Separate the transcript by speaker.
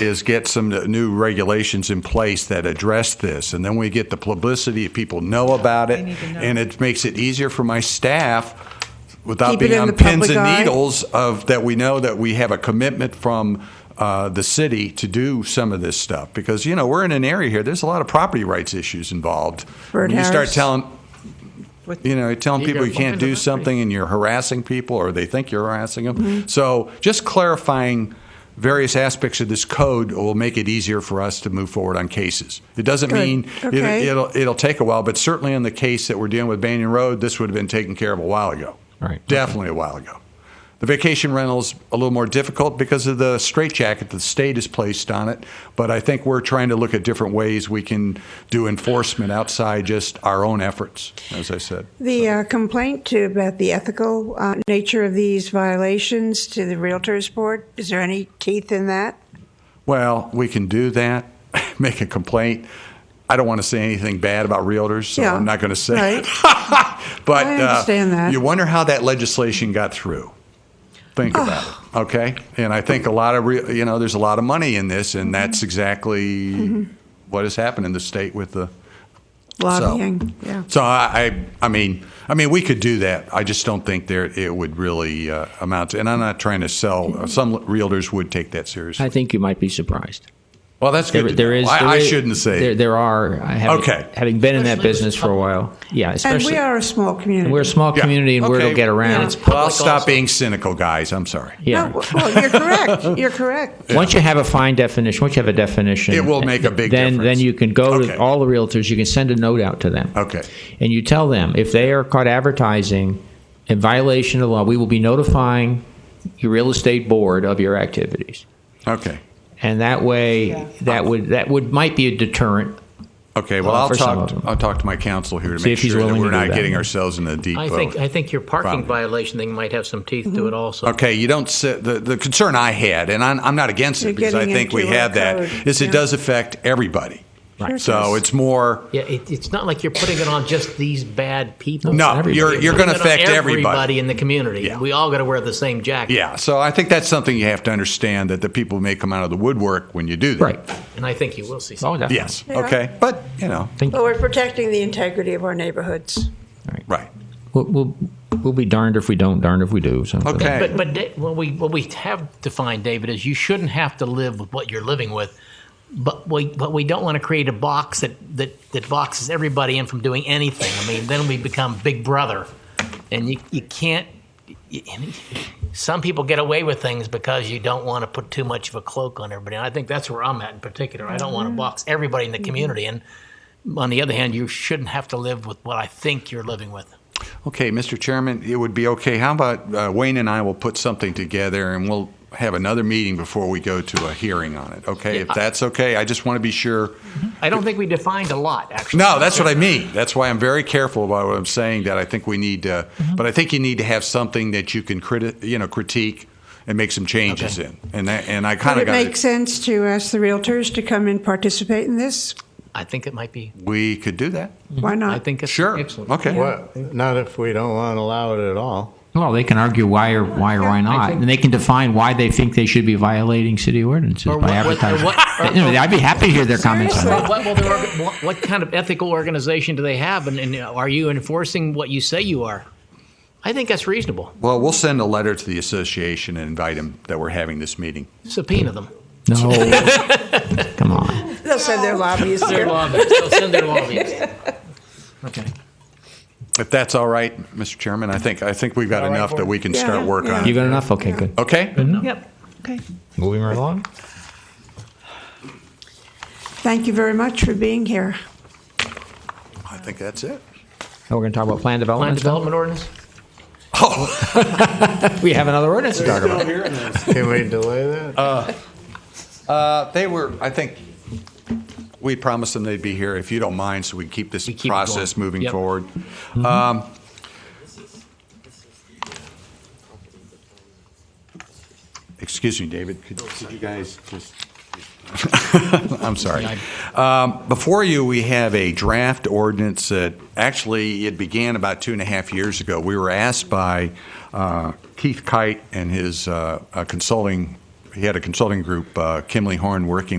Speaker 1: is get some new regulations in place that address this. And then we get the publicity, people know about it,
Speaker 2: They need to know.
Speaker 1: and it makes it easier for my staff without
Speaker 2: Keep it
Speaker 1: being
Speaker 2: in
Speaker 1: on
Speaker 2: the
Speaker 1: pins
Speaker 2: public
Speaker 1: and
Speaker 2: eye.
Speaker 1: needles of, that we know that we have a commitment from uh, the city to do some of this stuff. Because, you know, we're in an area here, there's a lot of property rights issues involved. When you start
Speaker 2: Birdhouse.
Speaker 1: telling,
Speaker 2: With-
Speaker 1: you know, telling
Speaker 3: You
Speaker 1: people
Speaker 3: got
Speaker 1: you can't
Speaker 3: fined on
Speaker 1: do
Speaker 3: that
Speaker 1: something and you're harassing people or they think you're harassing them.
Speaker 2: Mm-hmm.
Speaker 1: So just clarifying various aspects of this code will make it easier for us to move forward on cases. It doesn't
Speaker 2: Good.
Speaker 1: mean
Speaker 2: Okay.
Speaker 1: it, it'll it'll take a while, but certainly in the case that we're dealing with Banyan Road, this would have been taken care of a while ago.
Speaker 4: Right.
Speaker 1: Definitely a while ago. The vacation rental's a little more difficult because of the straitjacket that the state has placed on it, but I think we're trying to look at different ways we can do enforcement outside just our own efforts, as I said.
Speaker 2: The uh, complaint to about the ethical uh, nature of these violations to the Realtors Board, is there any teeth in that?
Speaker 1: Well, we can do that, make a complaint. I don't want to say anything bad about realtors, so
Speaker 2: Yeah,
Speaker 1: I'm not going to say.
Speaker 2: right.
Speaker 1: but
Speaker 2: I
Speaker 1: uh,
Speaker 2: understand that.
Speaker 1: you wonder how that legislation got through. Think about it, okay? And I think a lot of re- you know, there's a lot of money in this, and
Speaker 2: Mm-hmm.
Speaker 1: that's exactly what has happened in the state with the
Speaker 2: Lobbying,
Speaker 1: So,
Speaker 2: yeah.
Speaker 1: So I, I, I mean, I mean, we could do that. I just don't think there it would really uh, amount to. And I'm not trying to sell.
Speaker 2: Mm-hmm.
Speaker 1: Some realtors would take that seriously.
Speaker 4: I think you might be surprised.
Speaker 1: Well, that's good.
Speaker 4: There,
Speaker 1: to
Speaker 4: there
Speaker 1: know.
Speaker 4: is.
Speaker 1: I,
Speaker 4: there
Speaker 1: I
Speaker 4: is-
Speaker 1: shouldn't say.
Speaker 4: There,
Speaker 1: it.
Speaker 4: there are. I haven't-
Speaker 1: Okay.
Speaker 4: Having been in that
Speaker 3: Especially with
Speaker 4: business for a while. Yeah.
Speaker 2: And
Speaker 4: Especially.
Speaker 2: we are a small community.
Speaker 4: we're a small
Speaker 1: Yeah.
Speaker 4: community, and word
Speaker 1: Okay.
Speaker 4: will get around.
Speaker 2: Yeah.
Speaker 4: It's
Speaker 1: well, I'll
Speaker 3: public
Speaker 1: stop
Speaker 3: also.
Speaker 1: being cynical, guys. I'm sorry.
Speaker 4: yeah.
Speaker 2: No, well, you're correct, you're correct.
Speaker 4: Once you have a fine definition, once you have a definition,
Speaker 1: It will make a big
Speaker 4: then,
Speaker 1: difference.
Speaker 4: Then you can go
Speaker 1: Okay.
Speaker 4: to all the realtors. You can send a note out to them.
Speaker 1: Okay.
Speaker 4: And you tell them if they are caught advertising in violation of the law, we will be notifying your real estate board of your activities.
Speaker 1: Okay.
Speaker 4: And that way, that would that would might be a deterrent.
Speaker 1: Okay. Well,
Speaker 4: Uh,
Speaker 1: I'll
Speaker 4: for some
Speaker 1: talk.
Speaker 4: of them.
Speaker 1: I'll talk to my counsel here to
Speaker 4: See
Speaker 1: make
Speaker 4: if he's
Speaker 1: sure that
Speaker 4: willing
Speaker 1: we're
Speaker 4: to do
Speaker 1: not
Speaker 4: that.
Speaker 1: getting ourselves in the deep.
Speaker 3: I
Speaker 1: uh,
Speaker 3: think, I think your parking
Speaker 1: Problem.
Speaker 3: violation thing might have some teeth to it also.
Speaker 1: Okay, you don't sit, the, the concern I had, and I'm, I'm not against
Speaker 2: You're
Speaker 1: it because I
Speaker 2: getting
Speaker 1: think we
Speaker 2: into our
Speaker 1: have that,
Speaker 2: code,
Speaker 1: is it
Speaker 2: yeah.
Speaker 1: does affect everybody.
Speaker 2: Sure
Speaker 1: So
Speaker 2: does.
Speaker 1: it's more,
Speaker 3: Yeah, it, it's not like you're putting it on just these bad people.
Speaker 1: no,
Speaker 4: everybody.
Speaker 1: you're, you're
Speaker 3: You're
Speaker 1: going to
Speaker 3: putting it on
Speaker 1: affect everybody.
Speaker 3: in the community.
Speaker 1: Yeah.
Speaker 3: We all got to wear the same jacket.
Speaker 1: Yeah, so I think that's something you have to understand, that the people may come out of the woodwork when you do that.
Speaker 4: Right.
Speaker 3: And I think you will see some.
Speaker 4: Oh, definitely.
Speaker 1: Yes,
Speaker 2: Yeah.
Speaker 1: okay, but, you know,
Speaker 4: Thank
Speaker 2: But
Speaker 4: you.
Speaker 2: we're protecting the integrity of our neighborhoods.
Speaker 1: right,
Speaker 4: We'll, we'll, we'll be darned if we don't, darned if we do. So
Speaker 1: okay.
Speaker 3: But, but Da- what we, what we have defined, David, is you shouldn't have to live with what you're living with. But we, but we don't want to create a box that, that, that boxes everybody in from doing anything. I mean, then we become Big Brother, and you, you can't. You, some people get away with things because you don't want to put too much of a cloak on everybody. And I think that's where I'm at in particular. I don't want to box everybody in the community. And on the other hand, you shouldn't have to live with what I think you're living with.
Speaker 1: Okay, Mr. Chairman, it would be okay. How about uh, Wayne and I will put something together and we'll have another meeting before we go to a hearing on it, okay? If that's okay, I just want to be sure.
Speaker 3: I don't think we defined a lot, actually.
Speaker 1: No, that's what I mean. That's why I'm very careful about what I'm saying, that I think we need to, but I think you need to have something that you can criti, you know, critique and make some changes
Speaker 3: Okay.
Speaker 1: in. And that, and I
Speaker 2: Would
Speaker 1: kind of
Speaker 2: it
Speaker 1: got
Speaker 2: make
Speaker 1: it.
Speaker 2: sense to ask the Realtors to come and participate in this?
Speaker 3: I think it might be.
Speaker 1: We could do that.
Speaker 2: Why
Speaker 4: Mm-hmm.
Speaker 2: not?
Speaker 3: I think it's
Speaker 1: Sure.
Speaker 3: excellent.
Speaker 1: Okay.
Speaker 5: Well, not if we don't want to allow it at all.
Speaker 4: Well, they can argue why or why or why not, and they can define why they think they should be violating city ordinances
Speaker 3: Or
Speaker 4: by
Speaker 3: what- what-
Speaker 4: advertising.
Speaker 3: what- or-
Speaker 4: You know, I'd be happy to hear their comments on
Speaker 2: Seriously?
Speaker 4: that.
Speaker 3: What, what, well, they're orga- what, what kind of ethical organization do they have, and, and are you enforcing what you say you are? I think that's reasonable.
Speaker 1: Well, we'll send a letter to the association and invite them that we're having this meeting.
Speaker 3: Subpoena them.
Speaker 4: No, come on.
Speaker 2: They'll send their lobbyists
Speaker 3: Their
Speaker 2: here.
Speaker 3: lobbyists. They'll send their lobbyists. Okay.
Speaker 1: If that's all right, Mr. Chairman, I think, I think we've got
Speaker 5: All right,
Speaker 1: enough that we can
Speaker 2: Yeah,
Speaker 1: start work
Speaker 2: yeah.
Speaker 1: on.
Speaker 4: You
Speaker 1: it.
Speaker 4: got enough? Okay, good.
Speaker 1: Okay?
Speaker 3: Yep. Okay.
Speaker 4: Moving right along.
Speaker 2: Thank you very much for being here.
Speaker 1: I think that's it.
Speaker 4: Now we're going to talk about plan
Speaker 3: Land
Speaker 4: development.
Speaker 3: development ordinance.
Speaker 4: We have another ordinance to talk about.
Speaker 5: Can we delay that?
Speaker 1: Uh, They were, I think, we promised them they'd be here if you don't mind, so we can keep this
Speaker 3: We keep it
Speaker 1: process
Speaker 3: going.
Speaker 1: moving
Speaker 3: Yep.
Speaker 1: forward. Um, Excuse me, David, could could you guys just? I'm sorry. Um, Before you, we have a draft ordinance that, actually, it began about two and a half years ago. We were asked by uh, Keith Kite and his uh, uh, consulting, he had a consulting group, uh, Kimley Horn, working